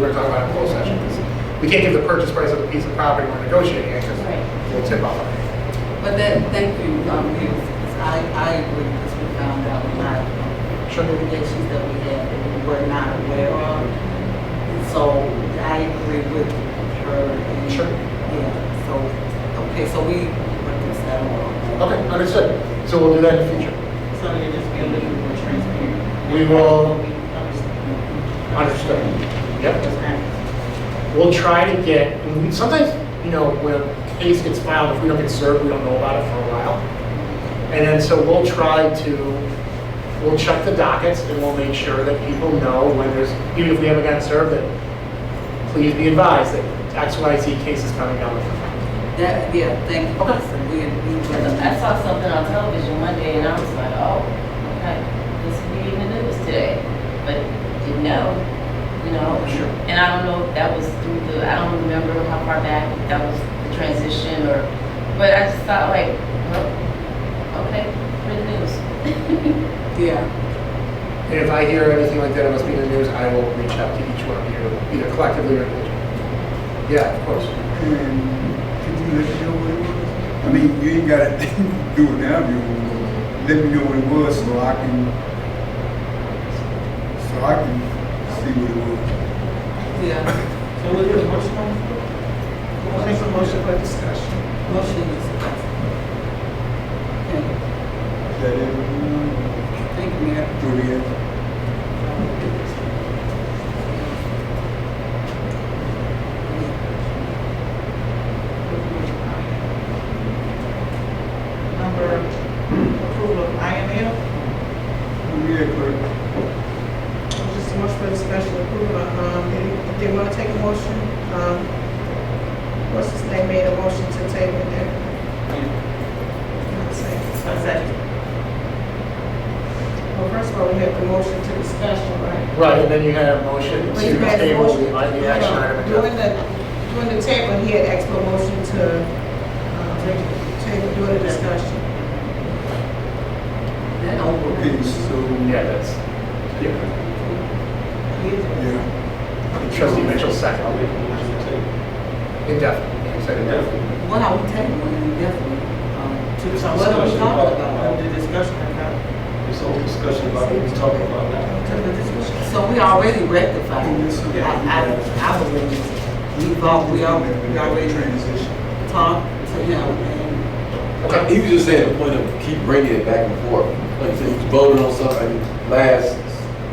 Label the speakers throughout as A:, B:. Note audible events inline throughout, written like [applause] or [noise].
A: We're talking about in closed session. because We can't give the purchase price of a piece of property we're negotiating it because
B: Right.
A: we'll tip off. on it.
B: But that, thank you, um, Bill, because I, I agree, because we found out a lot of litigations that we had that we were not aware of. So I agree with her. and-
A: Sure.
B: Yeah, so, okay, so we, what is that all?
A: Okay, understood. So we'll do that in the future.
B: So you're just being a little more transparent.
A: We will-
B: Understand.
A: Understood. Yep.
B: Understand.
A: We'll try to get, and we- sometimes, you know, when a case gets filed, if we don't get served, we don't know about it for a while. And then, so we'll try to, we'll check the dockets and we'll make sure that people know when there's, even if we haven't gotten served, that please be advised that X, Y, Z case is coming down.
B: That, yeah, thank you.
A: Okay.
B: We, we will.
C: I saw something on television one day and I was like, oh, okay, this is reading the news today. But didn't know, you know?
A: Sure.
C: And I don't know if that was through the, I don't remember how far back that was the transition or, but I just thought like, well, okay, good news. [laughs]
B: Yeah.
A: And if I hear anything like that, it must be in the news, I will reach out to each one of you, either collectively or individually. Yeah, of course.
D: And could you let me know what it was? I mean, you ain't gotta [laughs] do it now, you, let me know what it was so I can, so I can see what it was.
B: Yeah.
E: So we'll do a motion on the floor. We'll make a motion for discussion.
B: Motion is passed. Okay,
D: Is that it?
B: thank you, Mayor.
D: Juliet?
E: Number, approval of IML.
D: Juliet, clerk?
E: Just a motion for discussion approval. Um, did- did you want to take a motion? Um, what's his name made a motion to table it there? Second. Well, first of all, we have the motion to discussion, right?
A: Right, and then you had a motion to
E: Wait, you had a
A: table the
E: motion.
A: the action item.
E: During the, during the table, he had asked for a motion to, um, table during the discussion.
B: That over.
D: Okay,
A: Yeah,
D: so,
A: that's, yeah.
D: yeah,
A: Trustee Mitchell second. Indefinitely, you said indefinitely.
B: What are we tabling, definitely? um,
E: To
B: some What are we discussion talking about? about?
E: The discussion about.
F: This whole discussion about what we're talking about now.
E: To the discussion.
B: So we already rectified. it.
D: Yeah.
B: I, I, I believe, we all, we all, we already
D: transition.
B: talked to him and,
A: Okay,
G: He was just saying the point of keep bringing it back and forth. Like, so you voted on something last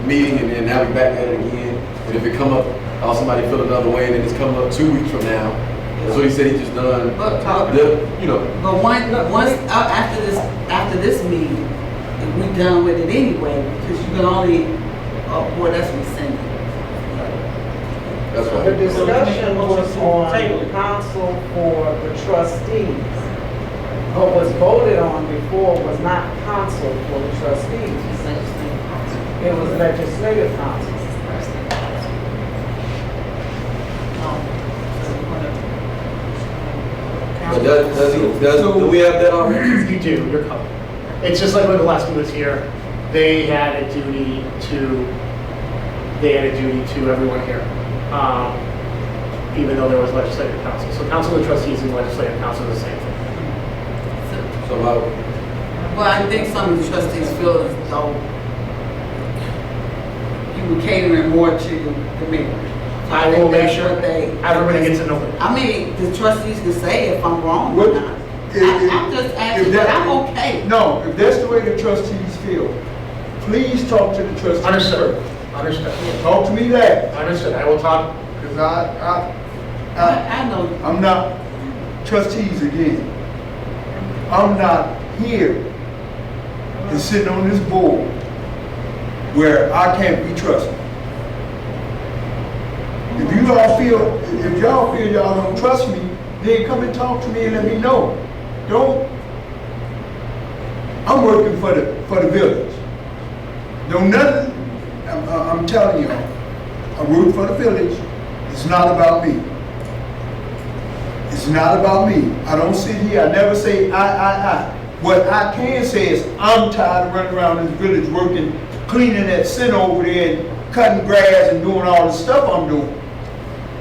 G: meeting and then now we back at it again. And if it come up, how somebody feel another way and then it's coming up two weeks from now. So he said he just done,
B: but talk.
G: the- you know,
B: But one, once, uh, after this, after this meeting, if we done with it anyway, because you can only, oh, boy, that's rescinded.
G: that's
H: The
G: why.
H: discussion was on council for the trustees. What was voted on before was not council for the trustees.
C: It's legislative.
H: It was legislative council.
G: But does, does he, does, do we have that
A: [clears throat]
G: already?
A: you do, you're covered. It's just like when Gillespie was here, they had a duty to, they had a duty to everyone here, um, even though there was legislative council. So council of trustees and legislative council is the same thing.
B: So-
G: So uh, how,
B: Well, I think some of the trustees feel as though you were catering more to the mayor.
A: I will make
B: That's
A: sure
B: what they-
A: everybody gets to know it.
B: I mean, the trustees can say if I'm wrong or
D: What-
B: not.
D: if-
B: I-
D: if-
B: I'm just
D: if
B: asking,
D: that-
B: but I'm okay.
D: No, if that's the way the trustees feel, please talk to the trustees.
A: Understood,
D: first.
A: understood,
D: Talk to me that,
A: understood. I will talk,
D: because I, I, I,
B: I I know,
D: I'm not, trustees again, I'm not here and sitting on this board where I can't be trusted. If you all feel, if y'all feel y'all don't trust me, then come and talk to me and let me know. Don't, I'm working for the, for the village. Don't nothing, I'm, I'm telling y'all, I work for the village, it's not about me. It's not about me. I don't sit here, I never say I, I, I. What I can say is I'm tired of running around this village working, cleaning that sin over there and cutting grass and doing all the stuff I'm doing.